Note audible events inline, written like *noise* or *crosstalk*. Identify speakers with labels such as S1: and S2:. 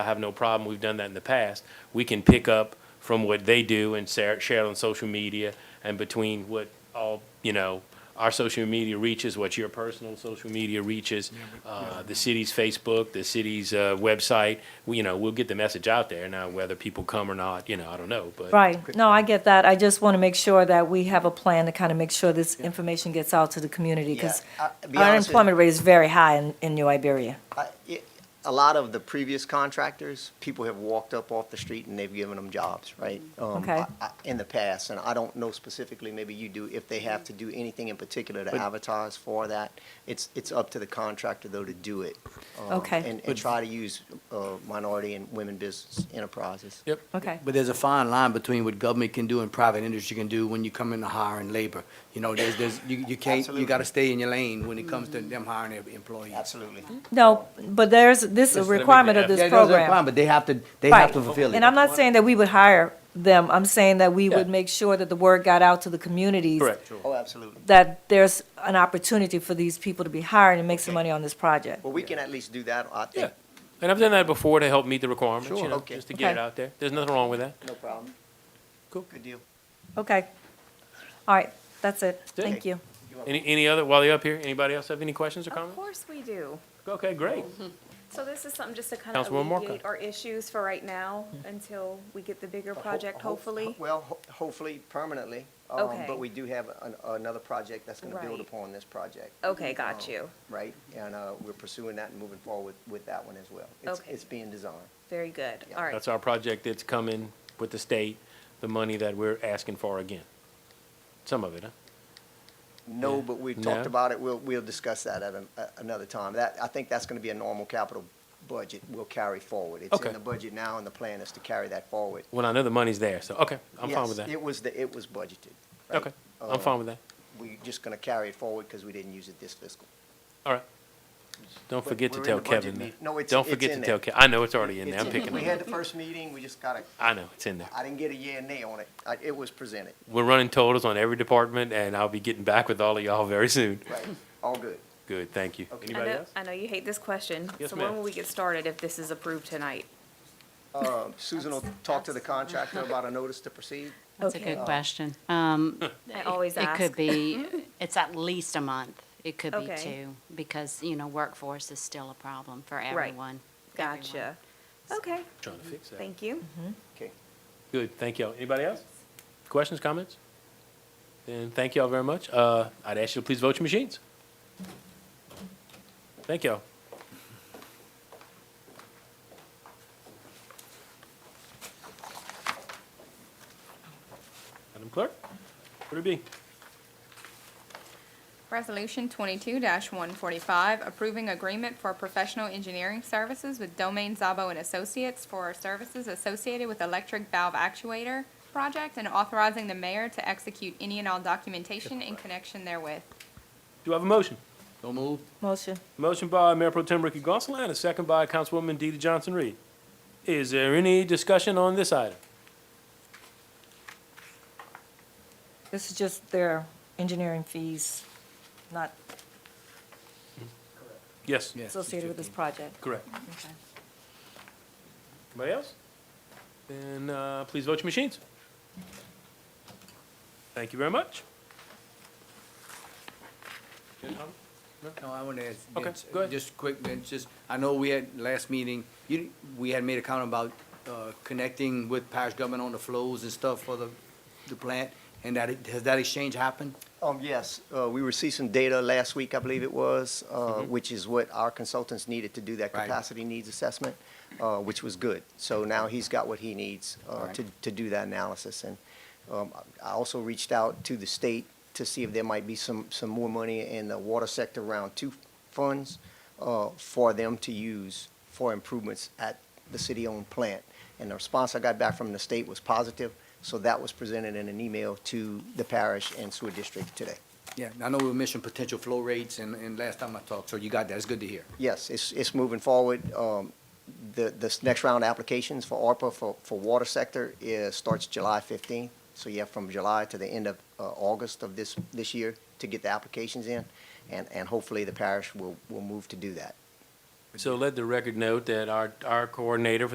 S1: I have no problem, we've done that in the past. We can pick up from what they do and share, share it on social media and between what all, you know, our social media reaches, what your personal social media reaches, uh, the city's Facebook, the city's, uh, website, we, you know, we'll get the message out there. Now, whether people come or not, you know, I don't know, but.
S2: Right, no, I get that, I just want to make sure that we have a plan to kind of make sure this information gets out to the community, because
S3: Yeah, I- to be honest with you-
S2: unemployment rate is very high in, in New Iberia.
S3: I- it- A lot of the previous contractors, people have walked up off the street and they've given them jobs, right? Um,
S2: Okay.
S3: I- I- In the past, and I don't know specifically, maybe you do, if they have to do anything in particular to advertise for that. It's, it's up to the contractor though to do it. um,
S2: Okay.
S3: And, and try to use uh, minority and women business enterprises.
S1: Yep.
S2: Okay,
S4: But there's a fine line between what government can do and private industry can do when you come into hiring labor. You know, there's, there's, you, you can't, you gotta stay in your lane when it comes to them hiring their employees.
S3: Absolutely.
S1: Mm-hmm.
S2: no, but there's, this is
S1: Just
S2: a
S1: let me
S2: requirement of
S1: get-
S2: this
S4: Yeah, there's a requirement,
S2: program.
S4: But they have to, they
S2: Right.
S4: have to fulfill it.
S2: And I'm not saying that we would hire them, I'm saying that we would
S1: Yeah.
S2: make sure that the word got out to the communities.
S1: Correct.
S3: Oh, absolutely.
S2: That there's an opportunity for these people to be hired and make some money on this project.
S3: Well, we can at least do that, I
S1: Yeah.
S3: think,
S1: And I've done that before to help meet the requirements, you
S3: Sure.
S1: know,
S3: Okay.
S1: just to get it
S2: Okay.
S1: out there. There's nothing wrong with that.
S3: no problem.
S1: Cool.
S3: Good deal.
S2: Okay, all right, that's it,
S1: it.
S2: thank you.
S1: Any, any other, while you're up here, anybody else have any questions or
S5: Of
S1: comments?
S5: course we do.
S1: Okay, great.
S5: So this is something just to kind of
S1: Councilwoman Marco.
S5: alleviate our issues for right now until we get the bigger project,
S3: Ho- ho-
S5: hopefully.
S3: Well, ho- hopefully permanently. um,
S5: Okay.
S3: But we do have an- another project that's going to build
S5: Right.
S3: upon this project.
S5: Okay, got
S3: um,
S5: you.
S3: Right? And uh, we're pursuing that and moving forward with that one as well. It's-
S5: Okay.
S3: It's being designed.
S5: Very good.
S3: Yeah.
S5: All right.
S1: That's our project that's coming with the state, the money that we're asking for again. Some of it, huh?
S3: No,
S1: Yeah.
S3: but we
S1: No.
S3: talked about it. We'll, we'll discuss that at an- a- another time. That, I think that's going to be a normal capital budget we'll carry forward. It's
S1: Okay.
S3: in the budget now and the plan is to carry that forward.
S1: Well, I know the money's there, so, okay, I'm fine
S3: Yes,
S1: with that.
S3: It was, the it was budgeted. right?
S1: Okay, I'm fine with that.
S3: We're just going to carry it forward because we didn't use it this fiscal.
S1: All right. Don't
S3: But
S1: forget to
S3: we're in
S1: tell
S3: the budget
S1: Kevin that.
S3: meet- no, it's-
S1: Don't
S3: it's
S1: forget
S3: in
S1: to
S3: there.
S1: tell Ke, I know it's already in there,
S3: It's-
S1: I'm picking
S3: We
S1: on
S3: had
S1: it.
S3: the first meeting, we just got to
S1: I know, it's in there.
S3: I didn't get a yea and nay on it. I, it was presented,
S1: We're running totals on every department, and I'll be getting back with all of y'all very soon.
S3: right? All good.
S1: Good, thank you.
S3: Okay.
S5: I
S1: Anybody
S5: know,
S1: else?
S5: I know you hate this question.
S1: Yes,
S5: So when
S1: ma'am.
S5: will we get started if this is approved tonight?
S3: Um, Susan will talk to the contractor about a notice to proceed.
S6: That's a
S5: Okay.
S6: good question. Um,
S5: I always
S6: It
S5: ask.
S6: could
S5: *laughs*
S6: be, it's at least a month. It could be
S5: Okay.
S6: two, because, you know, workforce is still a problem for everyone. everyone.
S5: Gotcha. Okay,
S1: Trying to fix that.
S5: thank you.
S3: Okay.
S1: Good, thank y'all. Anybody else? Questions, comments? Then thank y'all very much. Uh, I'd ask you to please vote your machines. Thank y'all. Madam Clerk, what it be?
S7: Resolution twenty-two one forty-five, approving agreement for professional engineering services with Domain Zabo and Associates for services associated with electric valve actuator project and authorizing the mayor to execute any and all documentation in connection therewith.
S1: Do I have a motion?
S4: Don't move.
S2: Motion.
S1: Motion by Mayor Pro Tem Ricky Gonsalas, and a second by Councilwoman DeeDee Johnson-Reed. Is there any discussion on this item?
S2: This is just their engineering fees, not
S1: Yes?
S4: Yes, it's
S2: associated with this
S4: 15.
S2: project.
S1: Correct.
S2: Okay.
S1: Anybody else? Then uh, please vote your machines. Thank you very much.
S4: No, I want to ask.
S1: Okay,
S4: Vince,
S1: go ahead.
S4: Just quick, Vince, just, I know we had last meeting, you, we had made a comment about, uh, connecting with parish government on the flows and stuff for the, the plant, and that, it- has that exchange happened?
S3: Um, yes, uh, we received some data last week, I believe it was, uh, which is what our consultants needed to do that
S4: Right.
S3: capacity needs assessment, uh, which was good. So now he's got what he needs, uh,
S4: Right.
S3: to, to do that analysis. And, um, I also reached out to the state to see if there might be some, some more money in the water sector round two funds, uh, for them to use for improvements at the city-owned plant. And the response I got back from the state was positive, so that was presented in an email to the parish and sewer district today.
S4: Yeah, I know we were mentioning potential flow rates, and, and last time I talked, so you got that, it's good to hear.
S3: Yes, it's, it's moving forward. Um, The, this next round of applications for ARPA for, for water sector is, starts July 15th. So you have from July to the end of uh, August of this, this year to get the applications in, and, and hopefully the parish will, will move to do that.
S1: So let the record note that our, our coordinator for